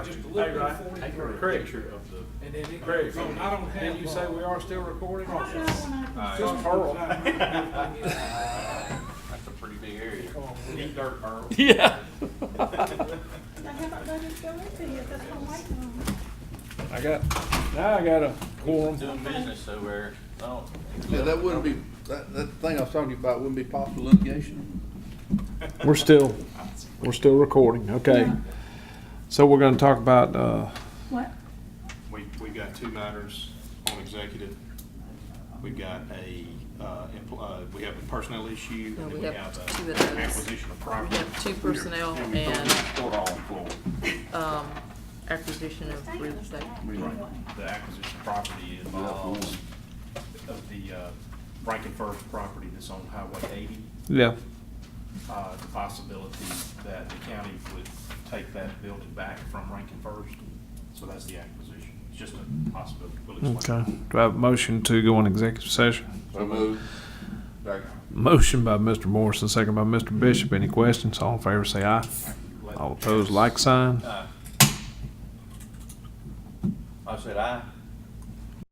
Just a Hey, little Ryan, bit take of a forty. picture of the. And then it Craig. goes on. I don't have. Didn't you say we are still recording? Just Pearl. That's a pretty big area. Deep dirt, Earl. Yeah. I haven't let it go into yet, that's what I'm waiting on. I got, now I got a quorum. Doing business over there. Oh. Yeah, that wouldn't be, that, that thing I was talking about wouldn't be possible litigation. We're still, we're still recording, okay. So we're gonna talk about, uh, What? We, we've got two matters on executive. We've got a, uh, empl- uh, we have a personnel issue, No, and we then we have have two a of those. acquisition of property. We have two personnel And we and- put all on floor. um, acquisition of real estate. The acquisition of property involves of the, uh, Rankin First property that's on Highway eighty. yeah, uh, the possibility that the county would take that building back from Rankin First. So that's the acquisition. It's just a possibility. We'll okay. explain. Do I have a motion to go on executive session? So moved. Motion by Mr. Morrison, second by Mr. Bishop. Any questions? All in favor, say aye. All opposed, like sign. I said aye.